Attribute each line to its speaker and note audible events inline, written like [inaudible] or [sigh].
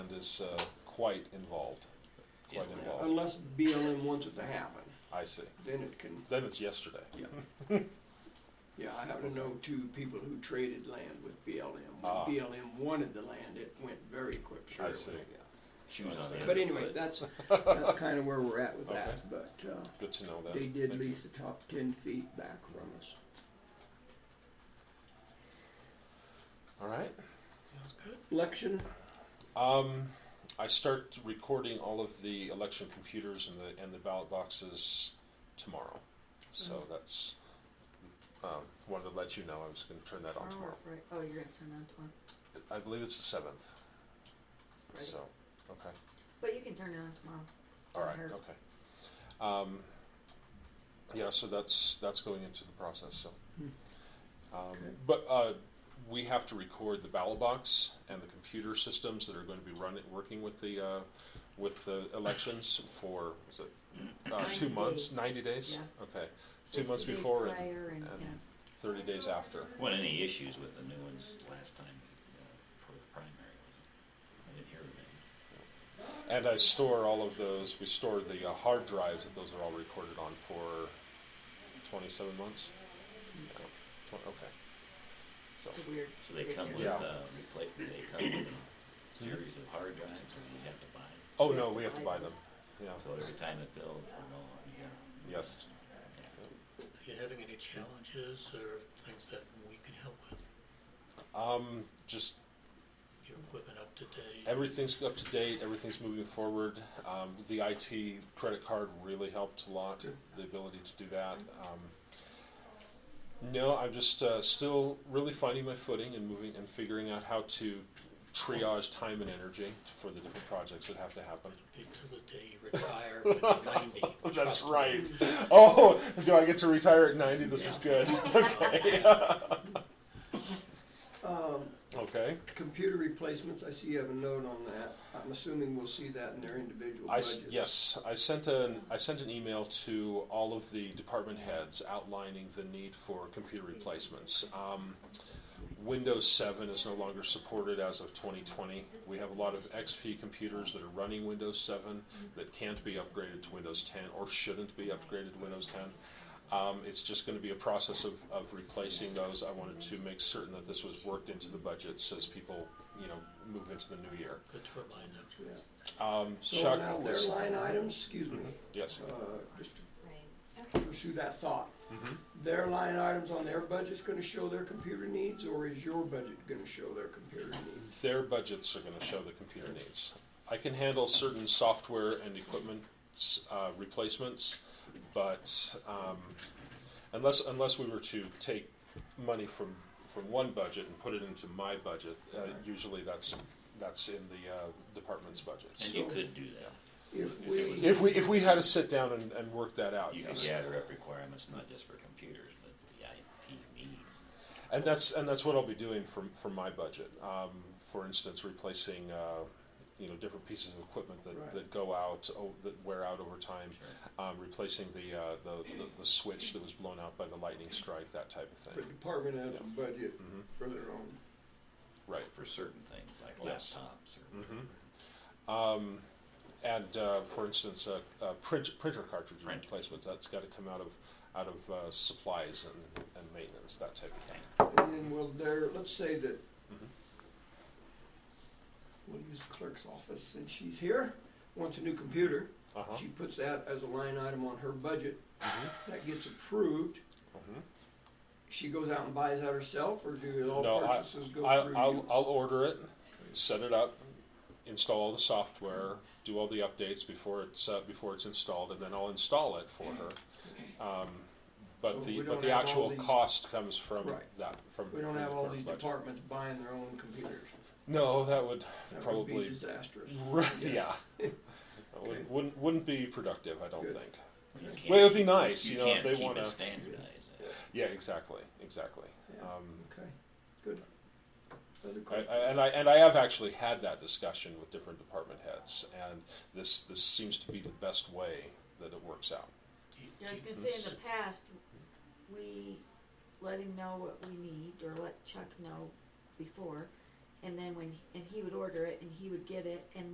Speaker 1: is uh, quite involved. Quite
Speaker 2: Yeah.
Speaker 1: involved.
Speaker 3: Unless BLM wants it to happen,
Speaker 1: I see.
Speaker 3: then it can,
Speaker 1: Then it's yesterday.
Speaker 3: yeah. Yeah, I happen to know two people who traded land with BLM.
Speaker 1: Ah.
Speaker 3: When BLM wanted the land, it went very quick.
Speaker 1: I
Speaker 3: surely,
Speaker 1: see.
Speaker 3: yeah.
Speaker 2: Shoes on the
Speaker 3: But
Speaker 2: other
Speaker 3: anyway,
Speaker 2: foot. [laughs]
Speaker 3: that's, that's kind of where we're at with that, but, uh,
Speaker 1: Good to know that.
Speaker 3: they did
Speaker 1: Thank you.
Speaker 3: lease the top ten feet back from us.
Speaker 1: All right.
Speaker 3: Election,
Speaker 1: Um, I start recording all of the election computers and the and the ballot boxes tomorrow. So that's um, wanted to let you know I was going to turn that on tomorrow.
Speaker 4: Right. Oh, you're gonna turn on tomorrow.
Speaker 1: I believe it's the seventh.
Speaker 4: Right.
Speaker 1: So okay.
Speaker 4: But you can turn it on tomorrow.
Speaker 1: All right.
Speaker 4: Or-
Speaker 1: Okay. Um, yeah. So that's that's going into the process. So,
Speaker 4: Hmm.
Speaker 1: um,
Speaker 3: Okay.
Speaker 1: but uh, we have to record the ballot box and the computer systems that are going to be running working with the uh, with the elections for is it, uh, two
Speaker 4: 90
Speaker 1: months,
Speaker 4: days.
Speaker 1: ninety days.
Speaker 4: Yeah.
Speaker 1: Okay. Two
Speaker 4: 60
Speaker 1: months
Speaker 4: days
Speaker 1: before and-
Speaker 4: prior and,
Speaker 1: and-
Speaker 4: yeah.
Speaker 1: Thirty days after.
Speaker 2: Wasn't any issues with the new ones last time, uh, for the primary, was it? I didn't hear of any.
Speaker 1: And I store all of those. We store the uh, hard drives that those are all recorded on for twenty-seven months. Tw- okay. So.
Speaker 4: It's a weird.
Speaker 2: So they
Speaker 4: weird
Speaker 2: come with,
Speaker 4: area.
Speaker 1: Yeah.
Speaker 2: uh, repla they come with a series of hard drives, or you have to buy? them?
Speaker 1: Oh no, we have to buy them. Yeah.
Speaker 2: So every time it fills, we're going, yeah.
Speaker 1: Yes.
Speaker 5: If you're having any challenges or things that we can help with,
Speaker 1: Um, just
Speaker 5: your equipment up to date.
Speaker 1: everything's up to date. Everything's moving forward. Um, the IT credit card really helped a lot. The ability to do that. Um, no, I'm just uh, still really finding my footing and moving and figuring out how to triage time and energy for the different projects that have to happen.
Speaker 5: Until the day you retire when you're
Speaker 1: [laughs]
Speaker 5: 90. trust me.
Speaker 1: Oh, do I get to retire at 90? This is good. okay. [laughs]
Speaker 3: um,
Speaker 1: okay.
Speaker 3: computer replacements, I see you have a note on that. I'm assuming we'll see that in their individual
Speaker 1: I s-
Speaker 3: budgets.
Speaker 1: yes, I sent an I sent an email to all of the department heads outlining the need for computer replacements. Um, Windows 7 is no longer supported as of 2020. We have a lot of XP computers that are running Windows 7 that can't be upgraded to Windows 10 or shouldn't be upgraded to Windows 10. Um, it's just going to be a process of, of replacing those. I wanted to make certain that this was worked into the budgets as people, you know, move into the new year.
Speaker 5: Good to remind them.
Speaker 3: Yeah.
Speaker 1: Um,
Speaker 3: So
Speaker 1: Chuck,
Speaker 3: now their
Speaker 1: this-
Speaker 3: line items, excuse me,
Speaker 1: yes.
Speaker 3: uh, just
Speaker 4: Right.
Speaker 3: to pursue that thought.
Speaker 1: Mm-hmm.
Speaker 3: Their line items on their budget's gonna show their computer needs, or is your budget gonna show their computer needs?
Speaker 1: their budgets are going to show the computer needs. I can handle certain software and equipment uh, replacements, but um, unless unless we were to take money from from one budget and put it into my budget, uh, usually that's that's in the uh, department's budgets.
Speaker 2: And you
Speaker 3: So-
Speaker 2: could do that.
Speaker 3: If
Speaker 2: If it was-
Speaker 3: we,
Speaker 1: If we if we had to sit down and, and work that out,
Speaker 2: You could
Speaker 1: yes.
Speaker 2: gather up requirements, not just for computers, but the IT needs.
Speaker 1: And that's and that's what I'll be doing for for my budget. Um, for instance, replacing uh, you know different pieces of equipment that,
Speaker 3: Right.
Speaker 1: that go out o- that wear out over time,
Speaker 2: Sure.
Speaker 1: um, replacing the, uh, the, the the switch that was blown out by the lightning strike, that type of
Speaker 3: the
Speaker 1: thing.
Speaker 3: department has a budget
Speaker 1: Mm-hmm.
Speaker 3: for their own,
Speaker 1: Right.
Speaker 2: for certain things like
Speaker 1: Yes.
Speaker 2: laptops or
Speaker 1: Um, and uh, for instance, uh, uh, print, printer cartridge
Speaker 2: Print.
Speaker 1: replacements that's got to come out of out of uh, supplies and, and maintenance, that type of thing.
Speaker 3: and then will their, let's say that
Speaker 1: Mm-hmm.
Speaker 3: we'll use the clerk's office, since she's here, wants a new computer,
Speaker 1: Uh-huh. Mm-hmm.
Speaker 3: she puts that as a line item on her budget, that gets approved. She goes out and buys that herself, or do all
Speaker 1: No, I,
Speaker 3: purchases go
Speaker 1: I,
Speaker 3: through
Speaker 1: I'll,
Speaker 3: you?
Speaker 1: I'll order it, set it up, install all the software, do all the updates before it's uh, before it's installed, and then I'll install it for her. Um, but
Speaker 3: So we
Speaker 1: the
Speaker 3: don't
Speaker 1: but the
Speaker 3: have all
Speaker 1: actual
Speaker 3: these-
Speaker 1: cost comes from
Speaker 3: Right.
Speaker 1: that from.
Speaker 3: We don't
Speaker 1: from
Speaker 3: have
Speaker 1: the
Speaker 3: all
Speaker 1: current
Speaker 3: these
Speaker 1: budget.
Speaker 3: departments buying their own computers.
Speaker 1: No, that would
Speaker 3: That
Speaker 1: probably
Speaker 3: would be disastrous.
Speaker 1: [laughs] Right, yeah.
Speaker 3: [laughs] Yes.
Speaker 1: That would- Wouldn't wouldn't be productive, I don't
Speaker 3: Good.
Speaker 1: think.
Speaker 2: You
Speaker 3: Mm-hmm.
Speaker 2: can't-
Speaker 1: Well, it would be nice, you,
Speaker 2: You
Speaker 1: know, if
Speaker 2: can't
Speaker 1: they
Speaker 2: keep
Speaker 1: want
Speaker 2: it
Speaker 1: to.
Speaker 2: standardized.
Speaker 1: Yeah, exactly, exactly.
Speaker 3: Yeah.
Speaker 1: Um,
Speaker 3: Okay, good. Other
Speaker 1: I,
Speaker 3: questions?
Speaker 1: I, and I and I have actually had that discussion with different department heads, and this this seems to be the best way that it works out.
Speaker 5: Do you-
Speaker 4: Yeah, I was
Speaker 5: do you-
Speaker 4: gonna say, in
Speaker 2: Mm-hmm.
Speaker 4: the past, we let him know what we need, or let Chuck know before, and then when, and he would order it, and he would get it, and